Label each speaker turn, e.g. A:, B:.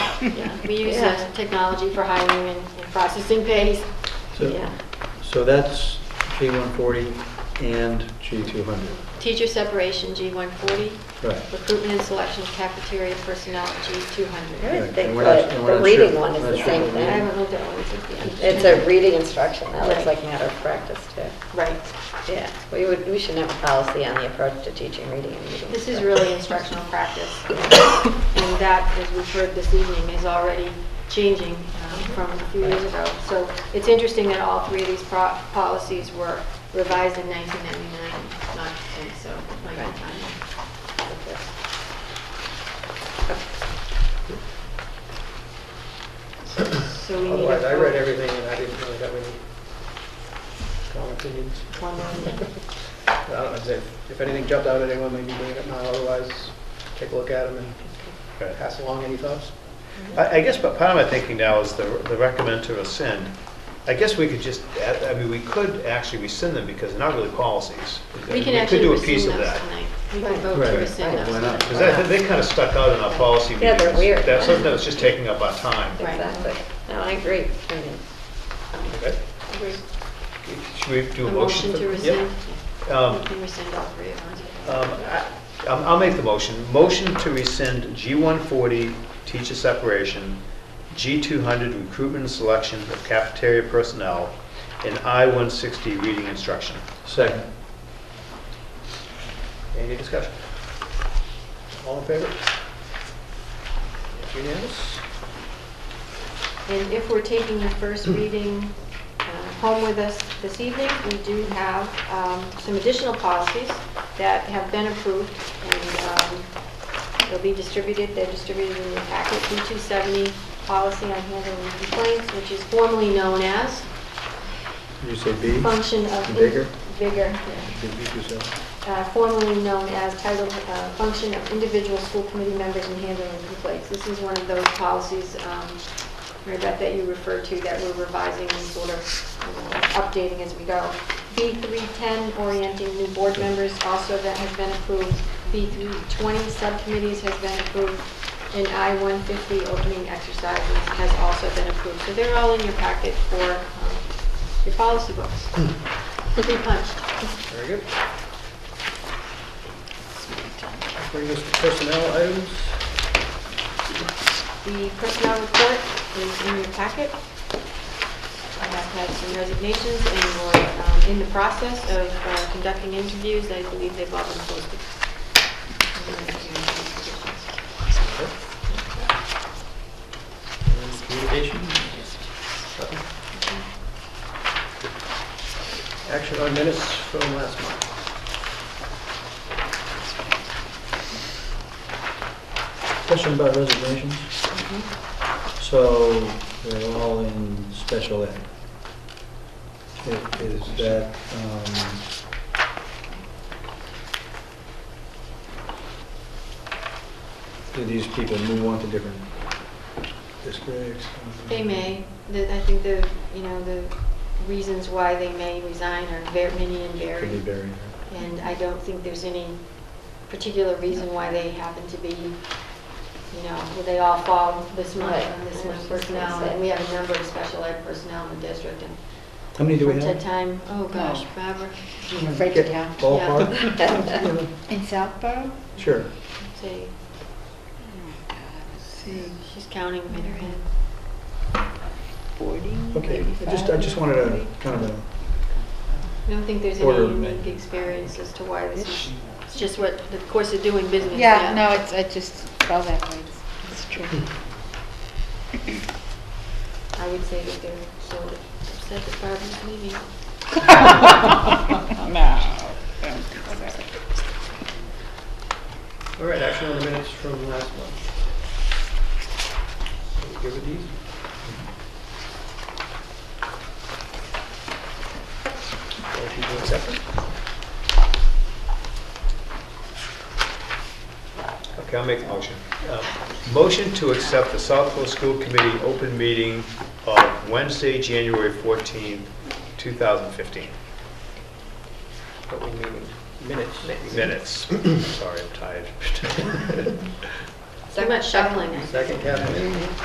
A: Yeah, we use
B: Yeah.
A: uh, technology for hiring and and processing pays.
C: So,
A: Yeah.
C: so that's G140 and G200.
A: Teacher separation, G140.
C: Right.
A: Recruitment and selection of cafeteria personnel, G200.
B: I
C: Yeah,
B: would
C: and
B: think
C: we're not-
B: that
C: and we're
B: the
C: not
B: reading
C: sure-
B: one is
C: not
B: the
C: sure
B: same
A: I
C: what reading-
B: thing.
A: haven't looked at one since the.
B: It's a reading instruction, that looks
A: Right.
B: like matter of practice too.
A: Right.
B: Yeah, we would, we should have a policy on the approach to teaching reading and reading.
A: This is really instructional practice. And that, as we've heard this evening, is already changing um, from a few years ago. So it's interesting that all three of these pro- policies were revised in 1999, not, and so, my own time. So we need. a
D: Otherwise, I read
A: vote.
D: everything and I didn't really have any strong opinions.
A: One more thing.
D: I don't know, if, there- if anything jumped out at anyone, maybe bring it up now, otherwise, take a look at them and
E: Right.
D: pass along any thoughts.
E: I, I guess, but part of my thinking now is the, the recommend to rescind. I guess we could just, add- I mean, we could actually rescind them because they're not really policies.
A: We can
E: could
A: actually
E: do a piece
A: rescind
E: of
A: those
E: that.
A: tonight. We can vote
C: Right,
A: to
C: right.
A: rescind
B: Why
A: those.
C: not?
A: tonight.
E: Because that, they kind of stuck out in our policy
B: Yeah,
E: meetings.
B: they're weird.
E: That's something that was just taking up our time.
A: Right.
B: Exactly. No, I agree. I mean,
E: Okay.
A: Agree.
E: Should we
A: Um,
E: do
A: A
E: a
A: motion
E: motion?
A: to
E: for-
A: rescind.
E: Yep. Um,
A: We can rescind all three of ours.
E: Um, I- I'll I'll make the motion. Motion to rescind G140, teacher separation, G200, recruitment and selection of cafeteria personnel, and I160, reading instruction.
C: Second.
D: Any discussion? All in favor? Unanimous?
A: And if we're taking the first reading uh, home with us this evening, we do have um, some additional policies that have been approved, and um, they'll be distributed, they're distributed in your packet, B270 policy on handling complaints, which is formerly known as
C: Did you say B?
A: function of...
C: Hmm. Vigor?
A: Vigor,
C: Did you do so?
A: uh, formerly known as title, uh, function of individual school committee members in handling complaints. This is one of those policies, um, Mary Beth, that you referred to, that we're revising and sort of uh, updating as we go. B310, orienting new board members, also that has been approved. B320, subcommittees has been approved. And I-150, opening exercises, has also been approved. So they're all in your packet for um, your policy books. Pretty punched.
D: Very good. Bring us to personnel items.
A: The personnel report is in your packet. I have had some resignations and we're um, in the process of uh, conducting interviews. I believe they've all been posted.
D: And Communication? Nothing? Action on minutes from last month.
C: Question about resignations? So they're all in special ed. I- Is that, um, do these people move on to different districts?
A: They may, The- I think the, you know, the reasons why they may resign are ver- many and
C: Could be
A: varied.
C: buried.
A: And I don't think there's any particular reason why they happen to be, you know, well, they all fall this month
B: Right.
A: and this
B: I was
A: month
B: just gonna
A: personnel.
B: say.
A: And we have a number of special ed personnel in the district and
C: How many do we
A: from
C: have?
A: time to time, oh gosh, Barbara,
B: Break it down.
C: Ballpark?
F: In Southborough?
C: Sure.
A: say, she's counting in her head.
F: 40,
C: Okay, I just, I just wanted a kind of a,
A: I don't think there's
C: Order
A: any
C: of
A: unique
C: magnitude.
A: experience as to why this is, it's just what, the course of doing business.
F: Yeah, no, it's, I just fell that way. It's- It's true.
A: I would say that they're so upset that Barbara's leaving.
F: No. don't feel that way.
D: All right, action on the minutes from last month. Are we good with these? Motion to accept them?
E: Okay, I'll make the motion. Uh, Motion to accept the Southfield School Committee open meeting of Wednesday, January 14th, 2015.
D: But we need minutes.
E: Minutes. Sorry, I'm tired.
A: Too much shuffling, I think.
D: Second, Kathleen?